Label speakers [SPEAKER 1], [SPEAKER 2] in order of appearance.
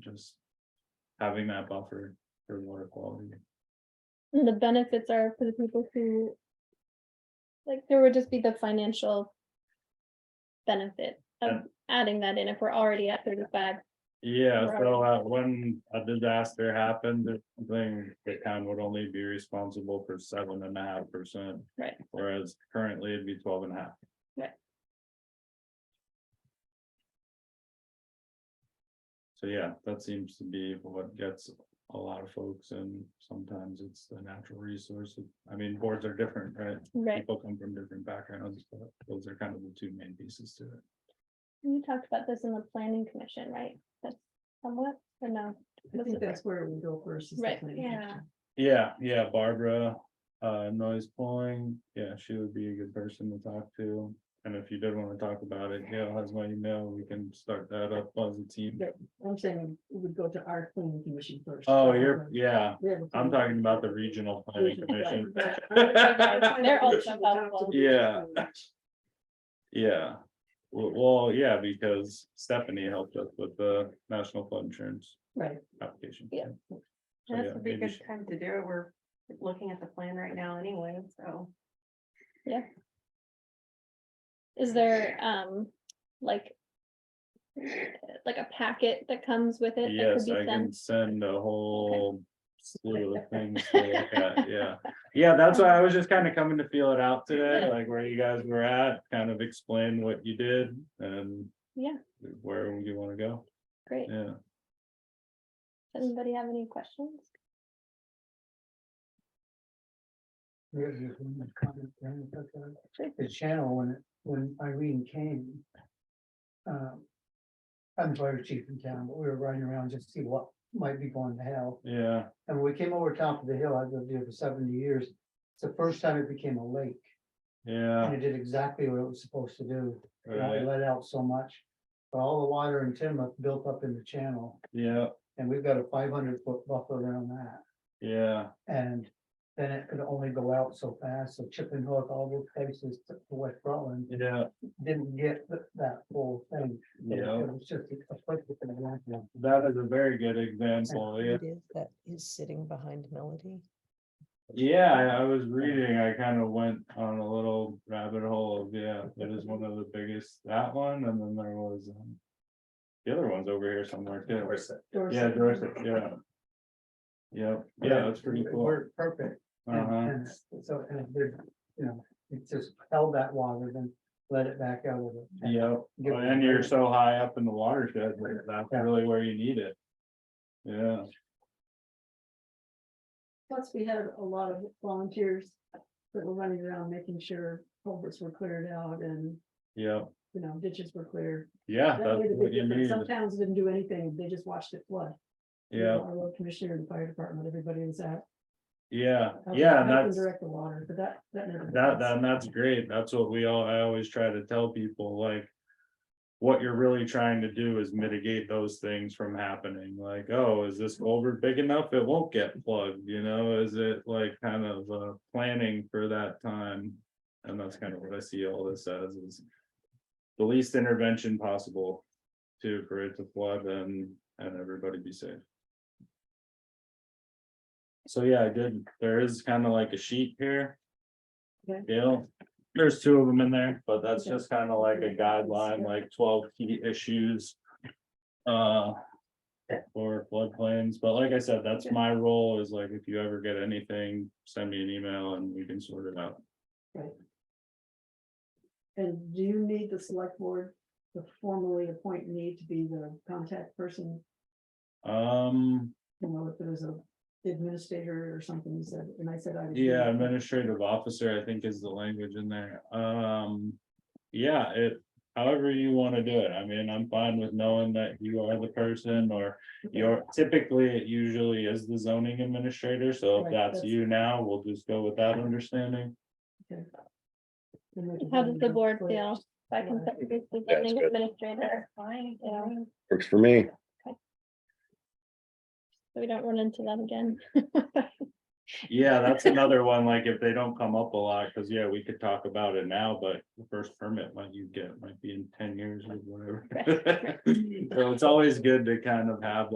[SPEAKER 1] just having that buffer for water quality.
[SPEAKER 2] And The benefits are for the people who. Like, there would just be the financial. Benefit of
[SPEAKER 1] Yeah.
[SPEAKER 2] adding that in if we're already at thirty-five.
[SPEAKER 1] Yeah,
[SPEAKER 2] Right.
[SPEAKER 1] so uh, when a disaster happened, the thing, the town would only be responsible for seven and a half percent.
[SPEAKER 2] Right.
[SPEAKER 1] Whereas currently it'd be twelve and a half.
[SPEAKER 2] Right.
[SPEAKER 1] So yeah, that seems to be what gets a lot of folks and sometimes it's the natural resource. I mean, boards are different, right?
[SPEAKER 2] Right,
[SPEAKER 1] People come from different backgrounds, but those are kind of the two main pieces to it.
[SPEAKER 2] we talked about this in the planning commission, right? That's somewhat, or no?
[SPEAKER 3] I
[SPEAKER 2] Was
[SPEAKER 3] think
[SPEAKER 2] it-
[SPEAKER 3] that's where we go first. is the
[SPEAKER 2] Right,
[SPEAKER 3] planning
[SPEAKER 2] yeah.
[SPEAKER 3] commission.
[SPEAKER 1] Yeah, yeah, Barbara, uh, noise pulling, yeah, she would be a good person to talk to. And if you did wanna talk about it, Gail has my email, we can start that up as a team.
[SPEAKER 3] Yeah. I'm saying we would go to our planning commission first.
[SPEAKER 1] Oh, you're, yeah,
[SPEAKER 3] We have a
[SPEAKER 1] I'm
[SPEAKER 3] planning-
[SPEAKER 1] talking about the regional planning commission.
[SPEAKER 3] Right, right.
[SPEAKER 2] They're also
[SPEAKER 3] We'll talk to
[SPEAKER 2] helpful.
[SPEAKER 3] the
[SPEAKER 1] Yeah.
[SPEAKER 3] commission.
[SPEAKER 1] Yeah, well, well, yeah, because Stephanie helped us with the national flood insurance
[SPEAKER 3] Right,
[SPEAKER 1] application.
[SPEAKER 2] Yeah.
[SPEAKER 1] So,
[SPEAKER 4] This
[SPEAKER 1] yeah,
[SPEAKER 4] would be a
[SPEAKER 1] maybe
[SPEAKER 4] good
[SPEAKER 1] she-
[SPEAKER 4] time to do it. We're looking at the plan right now anyway, so.
[SPEAKER 2] Is there, um, like? Like a packet that comes with it? that could
[SPEAKER 1] Yes,
[SPEAKER 2] be
[SPEAKER 1] I can
[SPEAKER 2] sent?
[SPEAKER 1] send a whole slew of things to look at, yeah. Yeah, that's why I was just kind of coming to feel it out today,
[SPEAKER 2] Yeah.
[SPEAKER 1] like where you guys were at, kind of explain what you did and.
[SPEAKER 2] Yeah.
[SPEAKER 1] Where you wanna go,
[SPEAKER 2] Great,
[SPEAKER 1] yeah,
[SPEAKER 2] does anybody have any questions?
[SPEAKER 5] Yeah, just one more comment, Karen, if I could.
[SPEAKER 2] Sure.
[SPEAKER 5] The channel, when, it- when Irene came. um, I'm the fire chief in town, but we were riding around just to see what might be going to hell.
[SPEAKER 1] yeah,
[SPEAKER 5] And when we came over top of the hill, I've lived here for seventy years. It's the first time it became a lake and
[SPEAKER 1] yeah,
[SPEAKER 5] it did exactly what it was supposed to do. It only
[SPEAKER 1] right,
[SPEAKER 5] let out so much. But all the water and timber built up in the channel
[SPEAKER 1] yeah,
[SPEAKER 5] and we've got a five hundred foot buffer around that.
[SPEAKER 1] yeah,
[SPEAKER 5] And then it could only go out so fast, so Chip and Hook, all those places to to West Rutland,
[SPEAKER 1] yeah,
[SPEAKER 5] didn't get th- that whole thing. It
[SPEAKER 1] yeah.
[SPEAKER 5] was just a flip within a lifetime.
[SPEAKER 1] That is a very good example, yeah.
[SPEAKER 6] it is that is sitting behind Melody.
[SPEAKER 1] Yeah, I- I was reading, I kind of went on a little rabbit hole, of, yeah, that is one of the biggest, that one, and then there was. um, The other one's over here somewhere too. Yeah,
[SPEAKER 3] Dorset.
[SPEAKER 1] Dorset, yeah. Yep, yeah, that's pretty
[SPEAKER 5] It
[SPEAKER 1] cool.
[SPEAKER 5] worked Perfect. And-
[SPEAKER 1] Uh-huh,
[SPEAKER 5] and it's- So, and it did, you know, it just held that water, then let it back out of it.
[SPEAKER 1] yep,
[SPEAKER 5] Give it a
[SPEAKER 1] and you're
[SPEAKER 5] break.
[SPEAKER 1] so high up in the watershed, that that's
[SPEAKER 5] Yeah.
[SPEAKER 1] really where you need it. Yeah,
[SPEAKER 3] Plus, we had a lot of volunteers that were running around making sure culverts were cleared out and,
[SPEAKER 1] yeah,
[SPEAKER 3] you know, ditches were cleared.
[SPEAKER 1] yeah,
[SPEAKER 3] That
[SPEAKER 1] that's
[SPEAKER 3] made a
[SPEAKER 1] what
[SPEAKER 3] big
[SPEAKER 1] you
[SPEAKER 3] difference.
[SPEAKER 1] need,
[SPEAKER 3] Some towns didn't do anything. They just watched it flood. You know,
[SPEAKER 1] yeah,
[SPEAKER 3] Our road commissioner, the fire department, everybody was at.
[SPEAKER 1] yeah,
[SPEAKER 3] helping-
[SPEAKER 1] yeah, and
[SPEAKER 3] helping
[SPEAKER 1] that's.
[SPEAKER 3] Direct the water, but that, that. made a big
[SPEAKER 1] That,
[SPEAKER 3] difference.
[SPEAKER 1] that, and that's great, that's what we all, I always try to tell people, like. What you're really trying to do is mitigate those things from happening, like, oh, is this culvert big enough? It won't get plugged, you know, is it like kind of, uh, planning for that time? And that's kind of what I see all this as is. The least intervention possible to, for it to flood and, and everybody be safe. So, yeah, I did, there is kind of like a sheet here. Yeah, there's two of them in there, but that's just kind of like a guideline, like twelve key issues. Uh. For floodplains, but like I said, that's my role is like, if you ever get anything, send me an email and we can sort it out.
[SPEAKER 3] And do you need the select board to formally appoint me to be the contact person?
[SPEAKER 1] Um,
[SPEAKER 3] You know, if there was a administrator or something, you said, and I said I. would do
[SPEAKER 1] yeah,
[SPEAKER 3] that.
[SPEAKER 1] administrative officer, I think is the language in there. Um. Yeah, it, however you want to do it. I mean, I'm fine with knowing that you are the person or
[SPEAKER 3] Okay.
[SPEAKER 1] Your, typically, it usually is the zoning administrator, so if
[SPEAKER 3] Right,
[SPEAKER 1] that's
[SPEAKER 3] that's-
[SPEAKER 1] you now, we'll just go with that understanding.
[SPEAKER 3] And we can
[SPEAKER 2] How does the
[SPEAKER 3] go
[SPEAKER 2] board
[SPEAKER 3] for it.
[SPEAKER 2] feel? If I can
[SPEAKER 3] Yeah.
[SPEAKER 2] set you the
[SPEAKER 7] That's
[SPEAKER 2] zoning
[SPEAKER 7] good.
[SPEAKER 2] administrator,
[SPEAKER 4] Fine.
[SPEAKER 2] yeah,
[SPEAKER 7] Works for me.
[SPEAKER 2] so we don't run into that again.
[SPEAKER 1] Yeah, that's another one, like if they don't come up a lot, because yeah, we could talk about it now, but the first permit might you get might be in ten years or whatever. So it's always good to kind of have